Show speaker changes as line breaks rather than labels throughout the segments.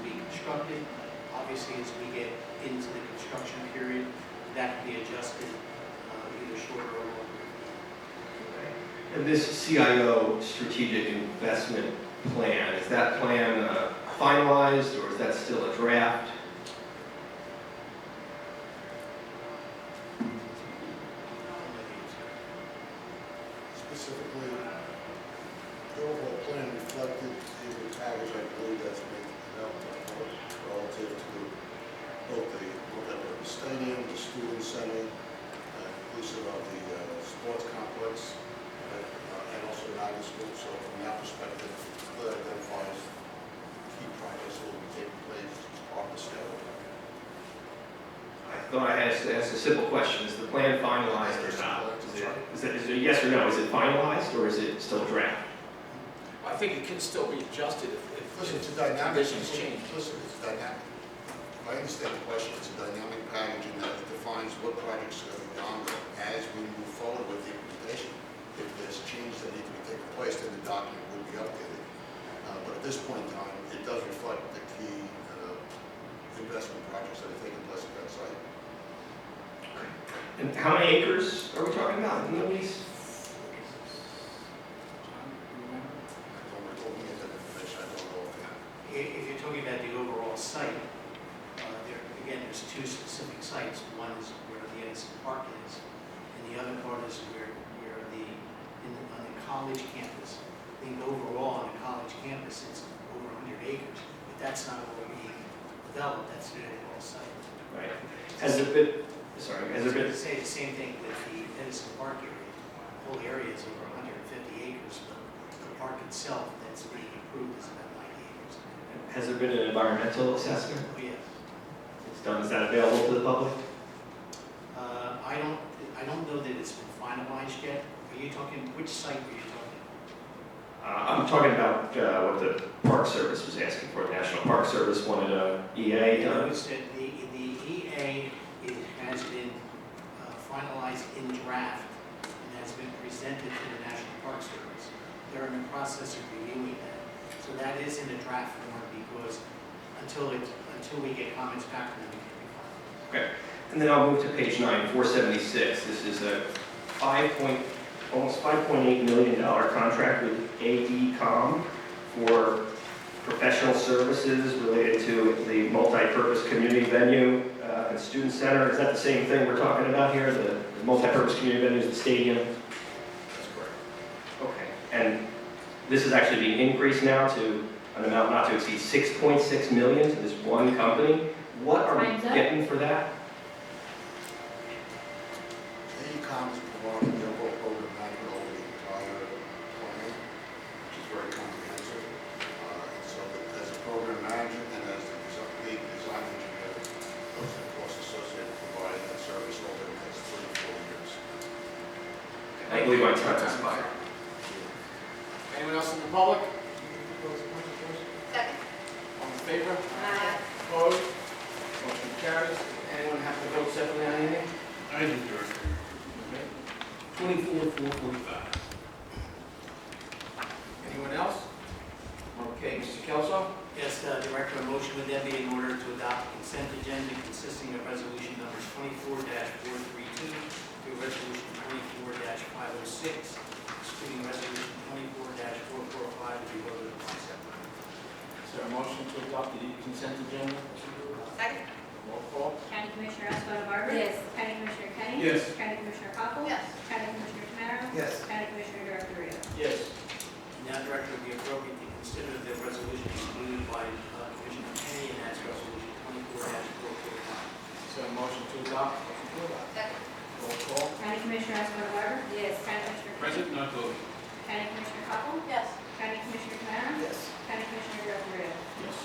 constructed. Obviously, as we get into the construction period, that can be adjusted uh, either shorter or longer.
And this CIO strategic investment plan, is that plan uh, finalized or is that still a draft?
Specifically, the overall plan reflected in the package, I believe that's been developed for relative to both the, whatever, the stadium, the student center, uh, inclusive of the uh, sports complex, uh, and also the school. So from that perspective, that identifies key projects that will be taking place on the schedule.
I thought I had to ask a simple question, is the plan finalized or not? Is it- Is it, is it yes or no, is it finalized or is it still a draft?
I think it can still be adjusted if- if,
Listen, it's a
if the
dynamic.
conditions change.
Listen, it's dynamic. If I understand the question, it's a dynamic package and that defines what projects are going to be ongoing as we move forward with the implementation. If there's changes that need to be taken place, then the document would be updated. Uh, But at this point in time, it does reflect the key uh, investment projects that are taking place at that site.
And how many acres are we talking about in the lease?
When we're looking at that information, I don't know. offhand.
I- If you're talking about the overall site, uh, there, again, there's two specific sites. One is where the Edison Park is, and the other part is where, where the, in the, on the college campus. I think overall on the college campus, it's over 100 acres, but that's not what we developed, that's the overall site.
Right. Has there been, sorry, has there
I
been,
was gonna Say the same thing with the Edison Park area. The whole area is over 150 acres, but the park itself that's being improved is about 90 acres.
has there been an environmental assessment?
Oh, yes.
It's done, is that available to the public?
Uh, I don't, I don't know that it's been finalized yet. Are you talking, which site were you talking?
Uh, I'm talking about uh, what the Park Service was asking for. The National Park Service wanted a EA
I
done.
noticed that the, the EA, it has been uh, finalized in draft and has been presented to the National Park Service. They're in the process of reviewing that. So that is in a draft form because until it, until we get comments back from them, it
And then I'll move to page nine, 476. This is a five point, almost 5.8 million dollar contract with AECom for professional services related to the multipurpose community venue uh, and student center. Is that the same thing we're talking about here? The the multipurpose community venue is the stadium?
That's correct.
Okay, and this is actually being increased now to an amount not to exceed 6.6 million to this one company. What are we
Time's up.
getting for that?
AECom is providing the overall program management over the entire plan, which is very comprehensive. Uh, and So that as a program manager and as the desi- lead design engineer, those are costs associated with providing that service over the next three to four years.
I believe my time is expired.
Anyone else in the public?
Second.
All in favor? Opposed? Motion carries. Anyone have to vote separately on anything?
I do, Director.
Okay. Twenty-four, four forty-five. Anyone else? Okay, Mr. Kelso?
Yes, uh, Director, a motion would then be in order to adopt consent agenda consisting of resolution numbers twenty-four four three two through resolution twenty-four five oh six, excluding resolution twenty-four four four five to be voted upon separately.
Is there a motion to adopt the consent agenda?
Second.
Roll call.
County Commissioner Escobar Barber.
Yes.
County Commissioner Kenny.
Yes.
County Commissioner Poppins.
Oh, Yes.
County Commissioner Tamara.
Yes.
County Commissioner Director Rio.
Yes.
Now, Director, it would be appropriate to consider the resolution included by uh, Commissioner Kenny, and that's Resolution twenty-four four four five.
Is there a motion to adopt?
Second.
Roll call.
County Commissioner Escobar Barber.
Yes.
County Commissioner Kenny.
Present, not voting.
County Commissioner Poppins.
Yes.
County Commissioner Tamara.
Yes.
County Commissioner Director Rio.
Yes.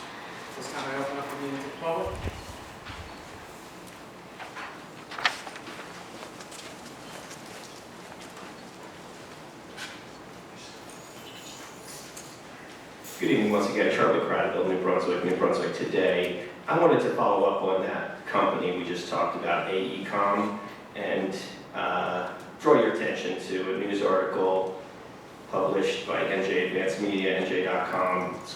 This time I open up the meeting to the public.
Good evening, once again, Charlie Prattville, New Brunswick, New Brunswick Today. I wanted to follow up on that company we just talked about, AECom, and uh, draw your attention to a news article published by NJ Advanced Media, NJ.com,